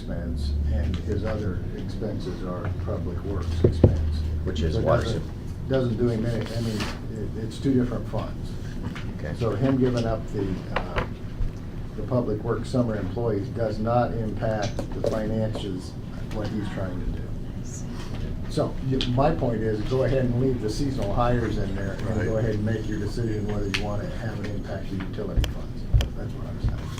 expense, and his other expenses are public works expense. Which is So it what? doesn't- Doesn't do him any, I mean, it, it's two different funds. Okay. So him giving up the, uh, the public works summer employees does not impact the finances, what he's trying to do. So, y- my point is, go ahead and leave the seasonal hires in there, and go Right. ahead and make your decision whether you want to have it impact the utility funds. That's what I'm saying.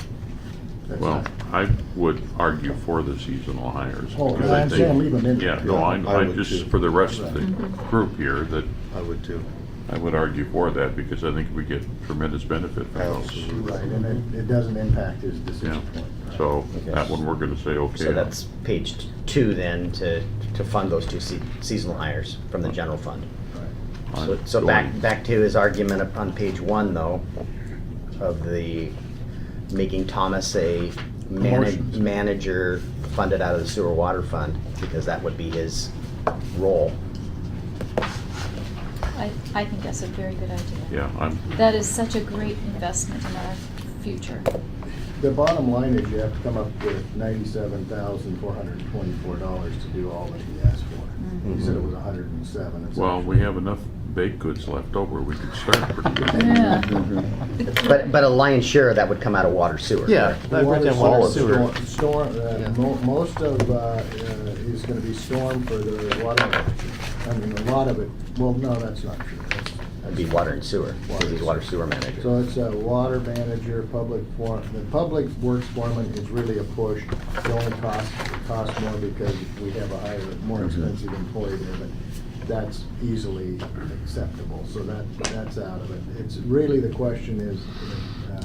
That's Well, not- I would argue for the seasonal hires. Oh, because I'm think- saying leave them in. Yeah, no, I, Yeah, I I would just, too. for the rest of the Right. group here, that I would too. I would argue for that because I think we get tremendous benefit from those. Absolutely. Right, and it, it doesn't impact his decision Yeah. point. right? So Okay. that one, we're gonna say okay. So that's page t- two then, to, to fund those two se- seasonal hires from the general fund. Right. I'm So- So back, going- back to his argument up on page one though, of the, making Thomas a manag- Promotions. manager funded out of the sewer water fund, because that would be his role. I, I think that's a very good idea. Yeah, I'm, That is such a great investment in our future. The bottom line is you have to come up with ninety-seven thousand, four hundred and twenty-four dollars to do all that he asked for. He said it was a hundred and seven. It's well, actually- we have enough baked goods left over. We could start pretty good. Yeah. But, but a lion's share of that would come out of water sewer. Yeah, correct? I wrote down Water, water sewer, sewer. storm- Storm, uh, mo- most of, uh, uh, is gonna be storm for the water, I mean, a lot of it, well, no, that's not true. That's- That'd be water and sewer, because he's water sewer manager. So it's a water manager, public form, the public works foreman is really a push. It only costs, it costs more because we have a higher, more expensive employee there, but that's easily acceptable, so that, that's out of it. It's really, the question is, uh,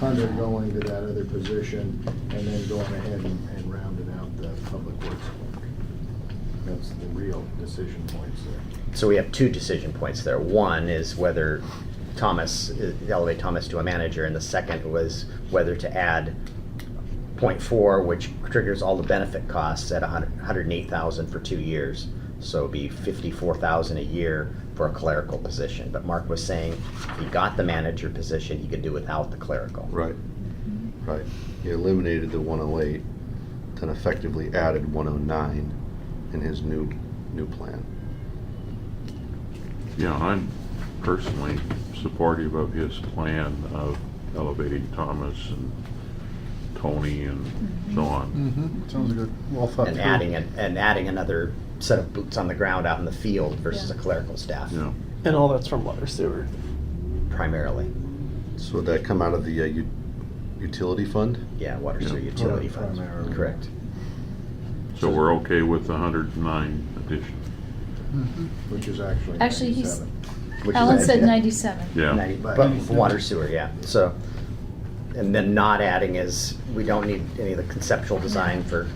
Hunter going to that other position and then going ahead and and rounding out the public works work. That's the real decision points there. So we have two decision points there. One is whether Thomas, uh, elevate Thomas to a manager, and the second was whether to add point four, which triggers all the benefit costs at a hundred and eight thousand for two years. So it'd be fifty-four thousand a year for a clerical position. But Mark was saying, if he got the manager position, he could do without the clerical. Right, right. He eliminated the one oh eight, then effectively added one oh nine in his new, new plan. Yeah, I'm personally supportive of his plan of elevating Thomas and Tony and so on. Mm-hmm, sounds good, well thought through. And adding, an- and adding another set of boots on the ground out in the field versus a Yeah. clerical staff Yeah. And all that's from water sewer. primarily. So would that come out of the uh, u- utility fund? Yeah, water sewer Yeah. utility funds, Primarily. correct. So we're okay with the hundred and nine addition? Mhm. Which is actually Actually, he's- 97. Which is Alan nice, said yeah. ninety-seven. Yeah, Ninety- But for water sewer, yeah, so, and then not adding is, we don't need any of the conceptual design for,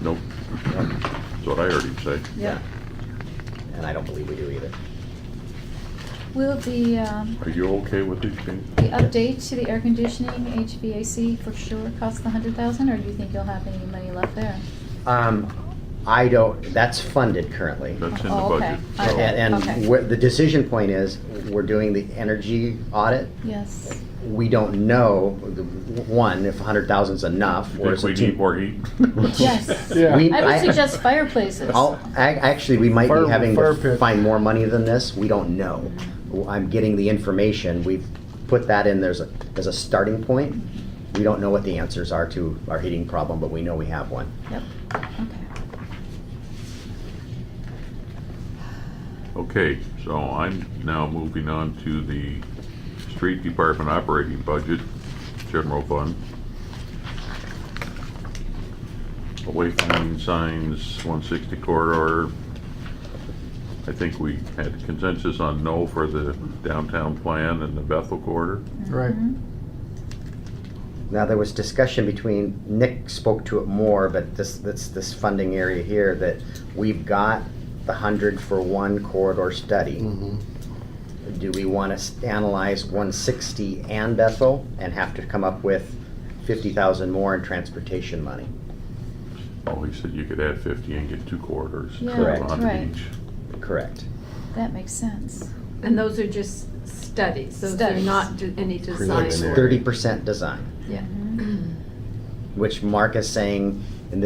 nope. That's what I heard him say. Yeah. and I don't believe we do either. Will the, um, Are you okay with these changes? the update to the air conditioning HVAC for sure cost the hundred thousand, or do you think you'll have any money left there? Um, I don't, that's funded currently. That's in the Oh, okay. budget. so- Okay. And, and Okay. where- the decision point is, we're doing the energy audit. Yes. We don't know, the- one, if a hundred thousand's enough, or Think is we it too? need more heat? Yes. Yeah. We- I I- would suggest fireplaces. I'll, ac- actually, we might Fire- be having fire to pit. find more money than this. We don't know. Well, I'm getting the information. We've put that in there's a, as a starting point. We don't know what the answers are to our heating problem, but we know we have one. Yep, okay. Okay, so I'm now moving on to the street department operating budget, general fund. Wayfinding signs, one sixty corridor. I think we had consensus on no for the downtown plan and the Bethel corridor. Right. Mm-hmm. Now, there was discussion between, Nick spoke to it more, but this, that's this funding area here that we've got the hundred for one corridor study. Mm-hmm. Do we want to analyze 160 and Bethel and have to come up with 50,000 more in transportation money? Oh, he said you could add fifty and get two corridors. Yeah, Correct. On right. each. Correct. That makes sense. And those are just studies, those are Studies. not d- any design. Preliminary. Mm-hmm. It's 30% design, Yeah. which Mark is saying